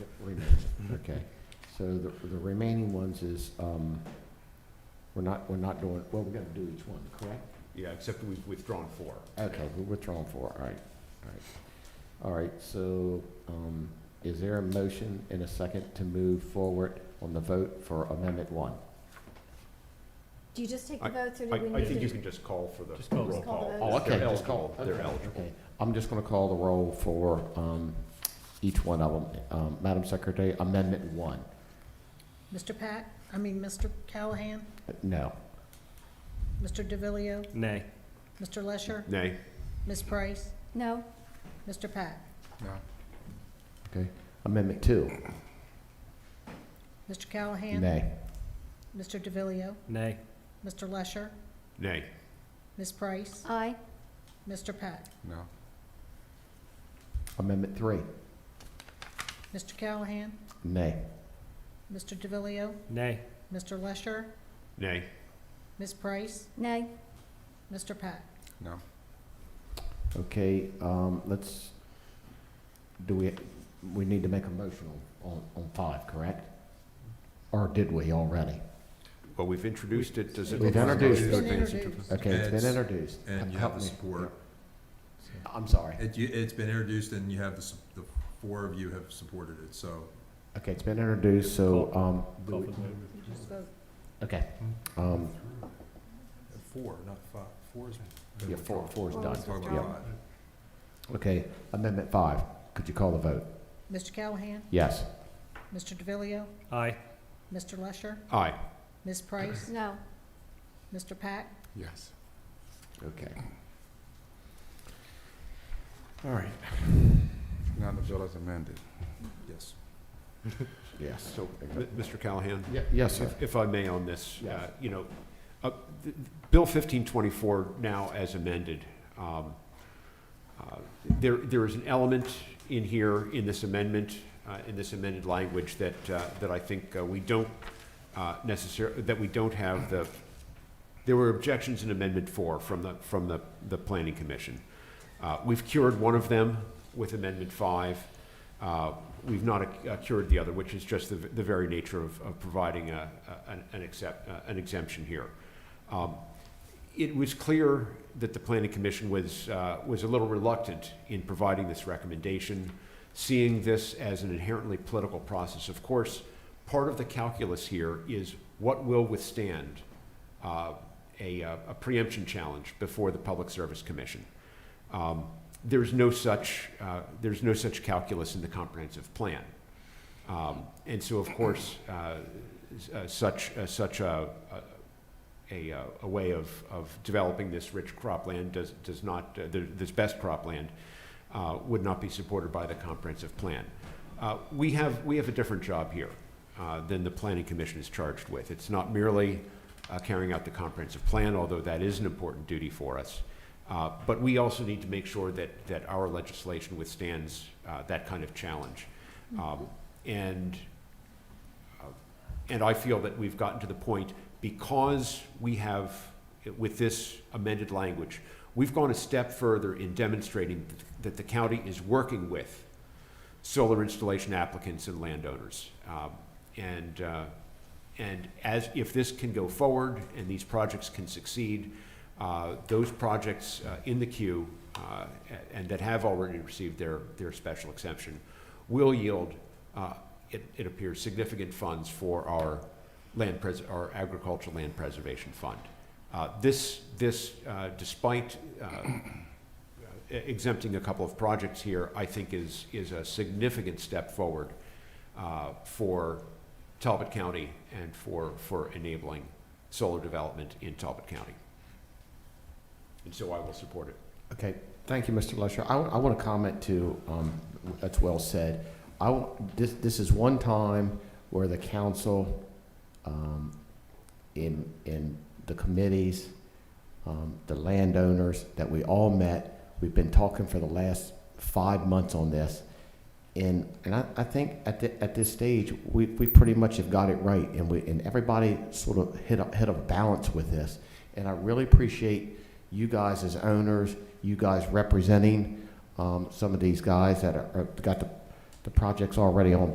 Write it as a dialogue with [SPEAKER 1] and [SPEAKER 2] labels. [SPEAKER 1] Okay, so the, the remaining ones is, um, we're not, we're not doing, well, we're gonna do each one, correct?
[SPEAKER 2] Yeah, except we've withdrawn four.
[SPEAKER 1] Okay, we're withdrawing four, all right, all right. All right, so, um, is there a motion and a second to move forward on the vote for Amendment One?
[SPEAKER 3] Do you just take
[SPEAKER 2] I-
[SPEAKER 3] the votes or
[SPEAKER 2] I,
[SPEAKER 3] do we
[SPEAKER 2] I
[SPEAKER 3] need to?
[SPEAKER 2] think you
[SPEAKER 3] just-
[SPEAKER 2] can just call for the
[SPEAKER 4] Just call.
[SPEAKER 2] roll
[SPEAKER 3] Just call
[SPEAKER 2] call.
[SPEAKER 3] the
[SPEAKER 1] Oh,
[SPEAKER 3] vote.
[SPEAKER 1] okay,
[SPEAKER 2] They're
[SPEAKER 1] just call.
[SPEAKER 2] eligible. They're
[SPEAKER 1] okay,
[SPEAKER 2] eligible.
[SPEAKER 1] okay. I'm just gonna call the roll for, um, each one of them. Um, Madam Secretary, Amendment One,
[SPEAKER 5] Mr. Pack, I mean, Mr. Callahan,
[SPEAKER 1] no.
[SPEAKER 5] Mr. DeVillio,
[SPEAKER 4] Nay.
[SPEAKER 5] Mr. Lesher,
[SPEAKER 2] Nay,
[SPEAKER 5] Ms. Price,
[SPEAKER 3] No,
[SPEAKER 5] Mr. Pack,
[SPEAKER 1] Okay, Amendment Two,
[SPEAKER 5] Mr. Callahan.
[SPEAKER 1] nay.
[SPEAKER 5] Mr. DeVillio,
[SPEAKER 4] Nay.
[SPEAKER 5] Mr. Lesher,
[SPEAKER 2] nay,
[SPEAKER 5] Ms. Price,
[SPEAKER 3] aye,
[SPEAKER 5] Mr. Pack,
[SPEAKER 6] No,
[SPEAKER 1] Amendment Three,
[SPEAKER 5] Mr. Callahan,
[SPEAKER 1] nay.
[SPEAKER 5] Mr. DeVillio,
[SPEAKER 4] Nay.
[SPEAKER 5] Mr. Lesher,
[SPEAKER 2] nay,
[SPEAKER 5] Ms. Price,
[SPEAKER 3] nay,
[SPEAKER 5] Mr. Pack.
[SPEAKER 6] no,
[SPEAKER 1] Okay, um, let's, do we, we need to make a motion on, on- on five, correct? Or did we already?
[SPEAKER 2] well, we've introduced it, does it?
[SPEAKER 1] We've introduced
[SPEAKER 5] It's been
[SPEAKER 2] Okay, it's
[SPEAKER 5] introduced.
[SPEAKER 1] Okay, it's
[SPEAKER 6] It's-
[SPEAKER 1] been introduced.
[SPEAKER 6] and you
[SPEAKER 1] Help
[SPEAKER 6] have the
[SPEAKER 1] me.
[SPEAKER 6] support.
[SPEAKER 1] I'm sorry.
[SPEAKER 6] It, you, it's been introduced and you have the, sup- the four of you have supported it, so.
[SPEAKER 1] Okay, it's been introduced, so, um, do
[SPEAKER 4] Call
[SPEAKER 1] we-
[SPEAKER 4] for the vote.
[SPEAKER 5] You just vote.
[SPEAKER 1] okay,
[SPEAKER 6] Hmm?
[SPEAKER 1] um,
[SPEAKER 6] Four, not five, four is.
[SPEAKER 1] yeah, four, four is
[SPEAKER 3] Four
[SPEAKER 1] done.
[SPEAKER 3] was
[SPEAKER 6] Talking about
[SPEAKER 1] Yeah.
[SPEAKER 3] withdrawn.
[SPEAKER 6] five.
[SPEAKER 1] Okay, amendment five, could you call the vote?
[SPEAKER 5] Mr. Callahan,
[SPEAKER 1] Yes.
[SPEAKER 5] Mr. DeVillio,
[SPEAKER 4] Aye.
[SPEAKER 5] Mr. Lesher,
[SPEAKER 2] Aye,
[SPEAKER 5] Ms. Price,
[SPEAKER 3] no,
[SPEAKER 5] Mr. Pack,
[SPEAKER 6] Yes.
[SPEAKER 1] Okay. All right.
[SPEAKER 6] Now the bill is amended. Yes.
[SPEAKER 1] Yes.
[SPEAKER 2] so, M- Mr. Callahan?
[SPEAKER 1] Ye- Yes, sir.
[SPEAKER 2] If if I may on this, uh,
[SPEAKER 1] Yes.
[SPEAKER 2] you know, uh, th- th- Bill 1524 now as amended, um, uh, there, there is an element in here, in this amendment, uh, in this amended language that, uh, that I think uh, we don't necessarily, that we don't have the, there were objections in Amendment 4 from the, from the, the Planning Commission. Uh, We've cured one of them with Amendment 5. Uh, We've not uh, cured the other, which is just the, the very nature of, of providing a, a- an, an accept, uh, an exemption here. Um, It was clear that the planning commission was, uh, was a little reluctant in providing this recommendation, seeing this as an inherently political process. Of course, part of the calculus here is what will withstand uh, a, uh, a preemption challenge before the Public Service Commission. Um, There's no such, uh, there's no such calculus in the comprehensive plan. Um, And so, of course, uh, s- uh, such, uh, such a, a, a, uh, a way of, of developing this rich cropland does, does not, uh, th- this best cropland uh, would not be supported by the comprehensive plan. Uh, We have, we have a different job here uh, than the planning commission is charged with. It's not merely uh, carrying out the comprehensive plan, although that is an important duty for us. Uh, But we also need to make sure that, that our legislation withstands uh, that kind of challenge. Um, And, uh, and I feel that we've gotten to the point, because we have, with this amended language, we've gone a step further in demonstrating that the county is working with solar installation applicants and landowners. Um, And, uh, and as, if this can go forward and these projects can succeed, uh, those projects uh, in the queue uh, a- and that have already received their, their special exemption will yield, uh, it, it appears, significant funds for our land pres, our agricultural land preservation fund. Uh, This, this, uh, despite uh, uh, exempting a couple of projects here, I think is, is a significant step forward uh, for Talbot County and for, for enabling solar development in Talbot County. And so I will support it.
[SPEAKER 1] Okay, thank you, Mr. Lesher. I, want to comment to, um, that's well said. I, wa- this, this is one time where the council, um, in, in the committees, um, the landowners, that we all met, we've been talking for the last five months on this. And, and I, I think at the, at this stage, we, we pretty much have got it right, and we, and everybody sort of hit a, hit a balance with this. And I really appreciate you guys as owners, you guys uh, representing, um, some of these guys that are, are- got the, the projects already on